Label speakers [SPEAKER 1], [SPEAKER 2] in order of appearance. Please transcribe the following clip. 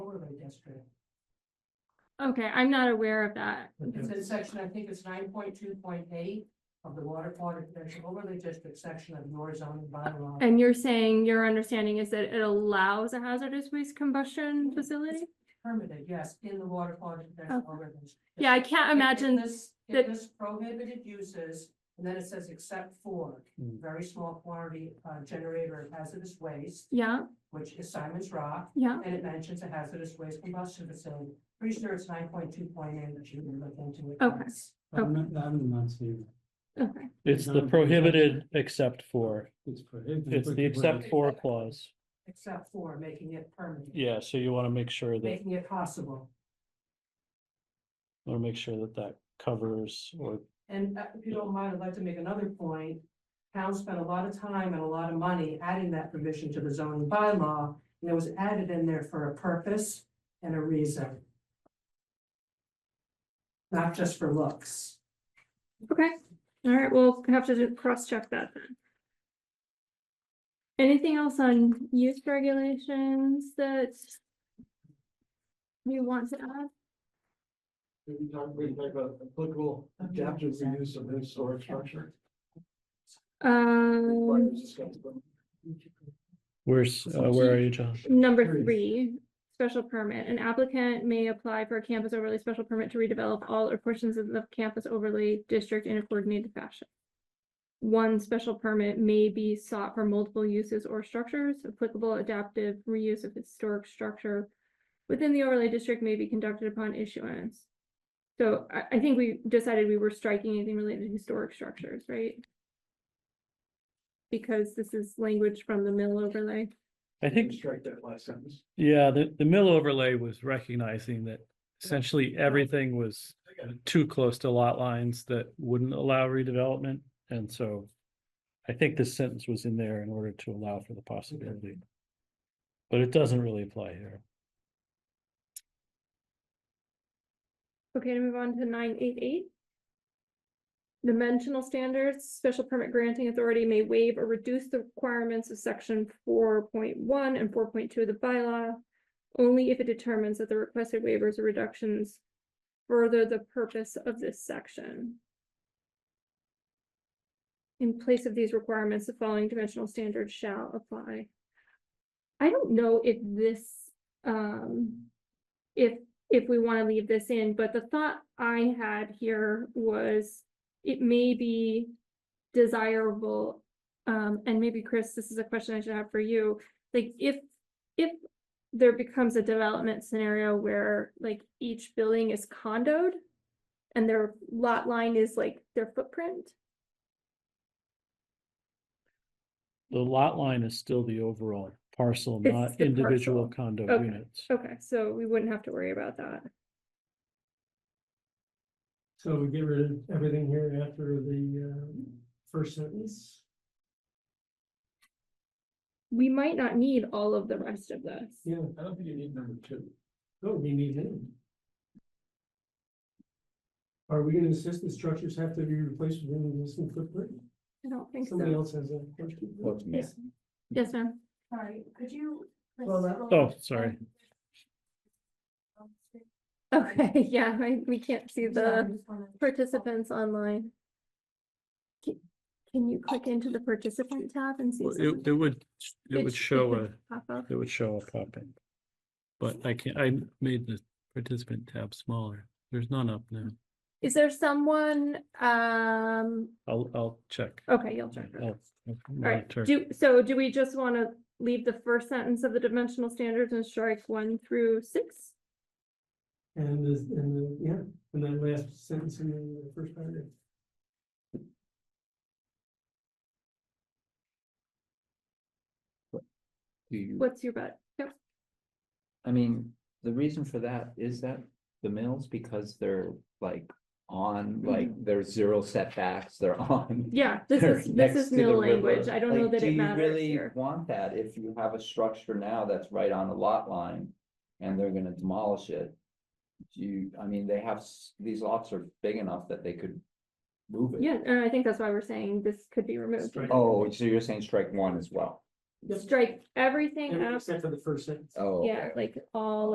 [SPEAKER 1] administrator.
[SPEAKER 2] Okay, I'm not aware of that.
[SPEAKER 1] It's in section, I think it's nine point two point eight of the water quality protection overlay district section of your zoning bylaw.
[SPEAKER 2] And you're saying your understanding is that it allows a hazardous waste combustion facility?
[SPEAKER 1] Permitted, yes, in the water quality protection overlay. district.
[SPEAKER 2] Yeah, I can't
[SPEAKER 1] It- it
[SPEAKER 2] imagine,
[SPEAKER 1] lists-
[SPEAKER 2] that-
[SPEAKER 1] It lists prohibited uses, and then it says except for
[SPEAKER 3] Mm.
[SPEAKER 1] very small quantity uh, generator of hazardous waste,
[SPEAKER 2] yeah,
[SPEAKER 1] which is Simon's Rock,
[SPEAKER 2] yeah,
[SPEAKER 1] and it mentions a hazardous waste combustion facility. Pretty sure it's nine point two point eight that you were looking to. it.
[SPEAKER 2] Okay.
[SPEAKER 3] I'm not, I'm not seeing
[SPEAKER 2] okay.
[SPEAKER 4] It's the prohibited except for,
[SPEAKER 3] that. It's prohibited.
[SPEAKER 4] it's the except for clause.
[SPEAKER 1] Except for making it permanent.
[SPEAKER 4] Yeah, so you want to make sure that,
[SPEAKER 1] Making it possible.
[SPEAKER 4] want to make sure that that covers or,
[SPEAKER 1] And uh, if you don't mind, I'd like to make another point. Town spent a lot of time and a lot of money adding that provision to the zoning bylaw, and it was added in there for a purpose and a reason. Not just for looks.
[SPEAKER 2] Okay, all right, we'll have to just cross-check that then. Anything else on use regulations that you want to add?
[SPEAKER 3] We talk, we talk about uh, applicable
[SPEAKER 1] adaptive reuse
[SPEAKER 3] of this storage
[SPEAKER 1] structure.
[SPEAKER 2] Um,
[SPEAKER 4] where's, uh, where are you, John?
[SPEAKER 2] number
[SPEAKER 3] Three.
[SPEAKER 2] three, special permit, an applicant may apply for a campus overlay special permit to redevelop all or portions of the campus overlay district in a coordinated fashion. One special permit may be sought for multiple uses or structures, applicable adaptive reuse of historic structure within the overlay district may be conducted upon issuance. So I, I think we decided we were striking anything related to historic structures, right? Because this is language from the mill overlay.
[SPEAKER 4] I think,
[SPEAKER 3] Strike that last sentence.
[SPEAKER 4] yeah, the, the mill overlay was recognizing that essentially everything was too close to lot lines that wouldn't allow redevelopment. And so I think this sentence was in there in order to allow for the possibility. But it doesn't really apply here.
[SPEAKER 2] Okay, to move on to nine eight eight. Dimensional standards, special permit granting authority may waive or reduce the requirements of section four point one and four point two of the bylaw. Only if it determines that the requested waivers or reductions further the purpose of this section. In place of these requirements, the following dimensional standards shall apply. I don't know if this, um, if if we want to leave this in, but the thought I had here was it may be desirable, um, and maybe Chris, this is a question I should have for you, like if, if there becomes a development scenario where like each building is condoed and their lot line is like their footprint,
[SPEAKER 4] The lot line is still the overall parcel,
[SPEAKER 2] It's
[SPEAKER 4] not
[SPEAKER 2] the
[SPEAKER 4] individual condo
[SPEAKER 2] Okay.
[SPEAKER 4] units.
[SPEAKER 2] okay, so we wouldn't have to worry about that.
[SPEAKER 3] So we get rid of everything here after the uh first sentence?
[SPEAKER 2] We might not need all of the rest of this.
[SPEAKER 3] Yeah, I don't think you need number two. No, we need it. Are we gonna insist the structures have to be replaced with an existing footprint?
[SPEAKER 2] I don't think
[SPEAKER 3] Somebody
[SPEAKER 2] so.
[SPEAKER 3] else has a question?
[SPEAKER 2] Yes, Yes, ma'am.
[SPEAKER 5] Sorry, could you?
[SPEAKER 1] Well, that-
[SPEAKER 4] Oh, sorry.
[SPEAKER 2] Okay, yeah, I- we can't see the.
[SPEAKER 5] participant.
[SPEAKER 2] Participants online. Ca- Can you click into the participant tab and see?
[SPEAKER 4] Well,
[SPEAKER 2] something
[SPEAKER 4] It, it would, it would
[SPEAKER 2] It's-
[SPEAKER 4] show a,
[SPEAKER 2] pop up?
[SPEAKER 4] it would show a pop-in. But I can't, I made the participant tab smaller. There's none up now.
[SPEAKER 2] Is there someone, um,
[SPEAKER 4] I'll, I'll check.
[SPEAKER 2] okay, you'll check.
[SPEAKER 4] I'll- I'll
[SPEAKER 2] Alright,
[SPEAKER 4] monitor.
[SPEAKER 2] do, so do we just want to leave the first sentence of the dimensional standards and strike one through six?
[SPEAKER 3] And this, and the, yeah, and that last sentence in the first paragraph.
[SPEAKER 6] Do you,
[SPEAKER 2] What's your bet? Yep.
[SPEAKER 6] I mean, the reason for that is that the mills, because they're like on, like, there's zero setbacks, they're on.
[SPEAKER 2] Yeah, Mm-hmm. this
[SPEAKER 6] they're
[SPEAKER 2] is,
[SPEAKER 6] next
[SPEAKER 2] this is
[SPEAKER 6] to the
[SPEAKER 2] mill
[SPEAKER 6] river.
[SPEAKER 2] language. I don't know
[SPEAKER 6] Like,
[SPEAKER 2] that
[SPEAKER 6] do
[SPEAKER 2] it
[SPEAKER 6] you
[SPEAKER 2] matters
[SPEAKER 6] really
[SPEAKER 2] here.
[SPEAKER 6] Want that if you have a structure now that's right on a lot line and they're gonna demolish it. Do you, I mean, they have, s- these lots are big enough that they could move it.
[SPEAKER 2] Yeah, and I think that's why we're saying this could be removed.
[SPEAKER 3] Strike
[SPEAKER 6] Oh, so you're saying strike one as well?
[SPEAKER 3] Yep.
[SPEAKER 2] Strike everything
[SPEAKER 3] Every-
[SPEAKER 2] out,
[SPEAKER 3] Except for the first sentence.
[SPEAKER 6] Oh.
[SPEAKER 2] yeah,
[SPEAKER 6] okay.
[SPEAKER 2] like all